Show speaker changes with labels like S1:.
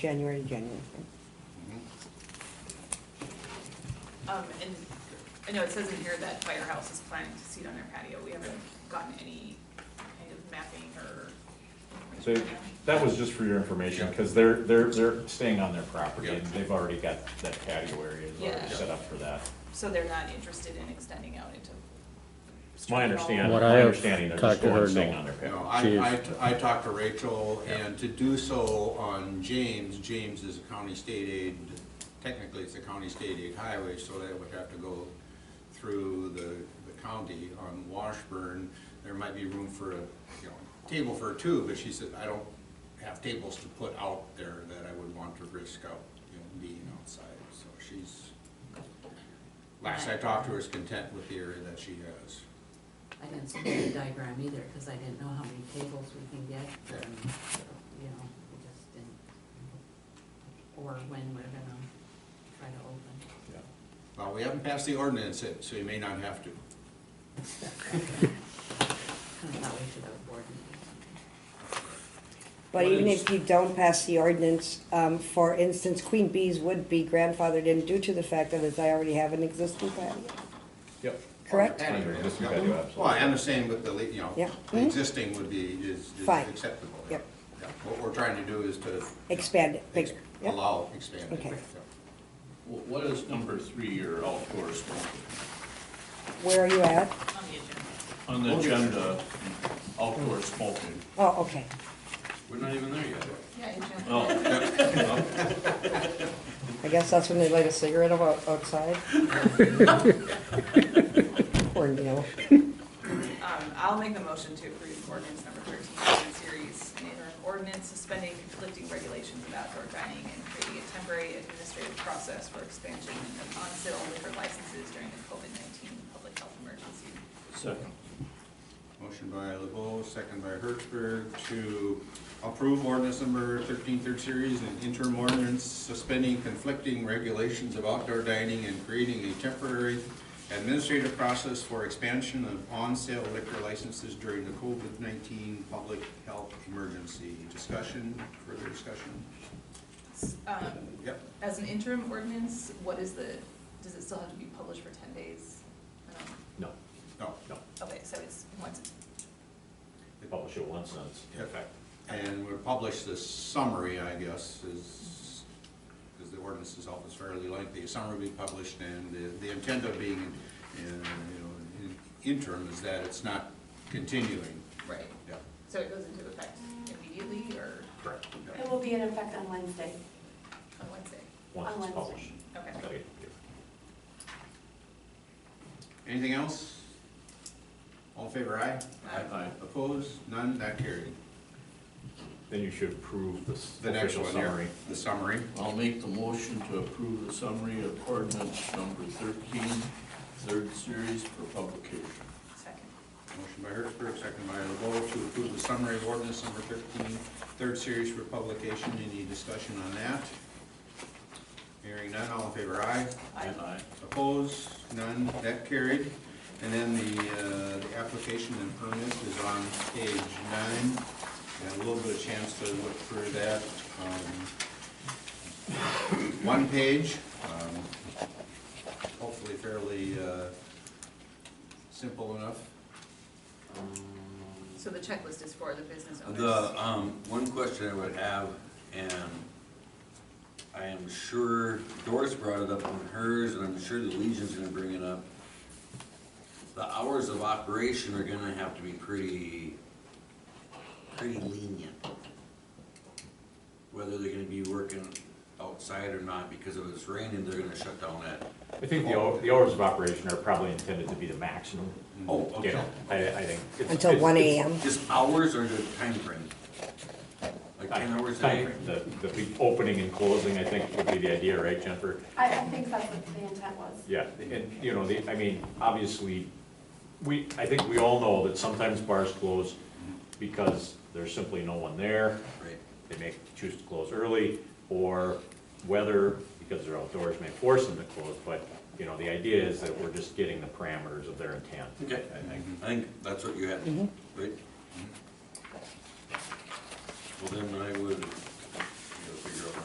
S1: January to January.
S2: Um, and I know it says in here that Firehouse is planning to seat on their patio. We haven't gotten any kind of mapping or.
S3: So that was just for your information, because they're, they're, they're staying on their property, and
S4: Yeah.
S3: they've already got that patio area is
S2: Yeah.
S3: already set up for that.
S2: So they're not interested in extending out into.
S3: It's my understanding,
S5: What
S3: my
S5: I have
S3: understanding, they're
S5: talked
S3: just
S5: to
S3: going
S5: her,
S3: and staying
S5: no.
S3: on their
S4: No,
S3: patio.
S5: She
S4: I,
S5: is-
S4: I, I talked to Rachel, and to do so on James, James is a county state aid, technically it's a county state aid highway, so that would have to go through the, the county on Washburn. There might be room for a, you know, table for two, but she said, I don't have tables to put out there that I would want to risk out, you know, being outside, so she's, last I talked to her is content with the area that she has.
S6: I didn't see the diagram either, because I didn't know how many tables we can get, and, you know, we just didn't. Or when we're gonna try to open.
S3: Yeah.
S4: Well, we haven't passed the ordinance yet, so you may not have to.
S6: Kind of thought we should have a board meeting.
S1: But even if you don't pass the ordinance, um, for instance, Queen Bees would be grandfathered in due to the fact that as I already have an existing patio,
S3: Yep.
S1: correct?
S4: Anyway,
S3: Under existing
S4: yeah.
S3: value, absolutely.
S4: Well, I understand what the, le- you know,
S1: Yeah.
S4: the
S1: Mhm.
S4: existing would be, is is
S1: Fine.
S4: acceptable. yeah.
S1: Yep.
S4: Yeah. What we're trying to do is to
S1: Expand it,
S4: ex-
S1: bigger. Yep.
S4: allow expanded.
S1: Okay.
S4: yeah.
S7: Wh- What is number three, your outdoor smoking?
S1: Where are you at?
S2: On the agenda.
S7: On the agenda, outdoor smoking,
S1: Oh, okay.
S7: we're not even there yet.
S2: Yeah, agenda.
S7: Oh,
S1: I guess that's when they light a cigarette out- outside. Poor Neil.
S2: Um, I'll make the motion to approve ordinance number thirteen in the series, an interim ordinance suspending conflicting regulations of outdoor dining and creating a temporary administrative process for expansion of on-sale liquor licenses during the COVID nineteen public health emergency.
S7: second.
S4: Motion by LeBeau, second by Hertzberg, to approve ordinance number thirteen, third series, an interim ordinance suspending conflicting regulations of outdoor dining and creating a temporary administrative process for expansion of on-sale liquor licenses during the COVID nineteen public health emergency. Discussion, further discussion?
S2: Um,
S4: Yep.
S2: As an interim ordinance, what is the, does it still have to be published for ten days? Um,
S3: No,
S4: No.
S3: no,
S2: Okay, so it's, once it's,
S3: they publish it once, and it's in
S4: Yep.
S3: effect.
S4: And we'll publish the summary, I guess, is, because the ordinance itself is fairly lengthy. A Summary will be published, and the- the intent of being, uh, you know, in- interim is that it's not continuing.
S2: right,
S4: Yeah,
S2: so it goes into effect immediately or
S3: Correct.
S4: yeah.
S8: It will be in effect on Wednesday.
S2: on Wednesday?
S3: Once
S8: On
S3: it's
S8: Wednesday.
S3: published.
S2: Okay.
S3: Gotta get-
S4: Anything else? All in favor, aye?
S2: Aye.
S7: Aye.
S4: Opposed? None? Not carried.
S3: Then you should approve the s-
S4: The next
S3: official
S4: one here,
S3: summary.
S4: the summary.
S7: I'll make the motion to approve the summary of ordinance number thirteen, third series for publication.
S2: Second.
S4: Motion by Hertzberg, second by LeBeau, to approve the summary of ordinance number 13, third series for publication. Any discussion on that? Hearing none, all in favor, aye.
S2: Aye.
S4: Opposed, none, that carried. And then the, uh, the application and permit is on page nine. Got a little bit of chance to look through that. Um, One page, um, hopefully fairly uh, simple enough.
S2: So the checklist is for the business owners?
S9: The, um, one question I would have, and I am sure Doris brought it up on hers, and I'm sure the Legion's gonna bring it up. The hours of operation are gonna have to be pretty, pretty lenient. Whether they're gonna be working outside or not, because if it's raining, they're gonna shut down that.
S3: I think the, hou- the hours of operation are probably intended to be the maximum.
S9: Oh,
S3: You
S9: okay.
S3: know, I, I think. it's-
S1: Until
S3: it's-
S1: one
S3: it's-
S1: AM.
S9: Just hours or the time frame? Like ten hours a day?
S3: Timeframe, The, the be- opening and closing, I think, would be the idea, right, Jennifer?
S8: I, I think that's what the intent was.
S3: Yeah, and, you know, the, I mean, obviously, we, I think we all know that sometimes bars close because there's simply no one there.
S9: Right.
S3: They may choose to close early, or weather, because they're outdoors, may force them to close, but, you know, the idea is that we're just getting the parameters of their intent.
S9: Okay.
S3: I think.
S9: I think that's what you had, right? Mm-hmm. Well, then I would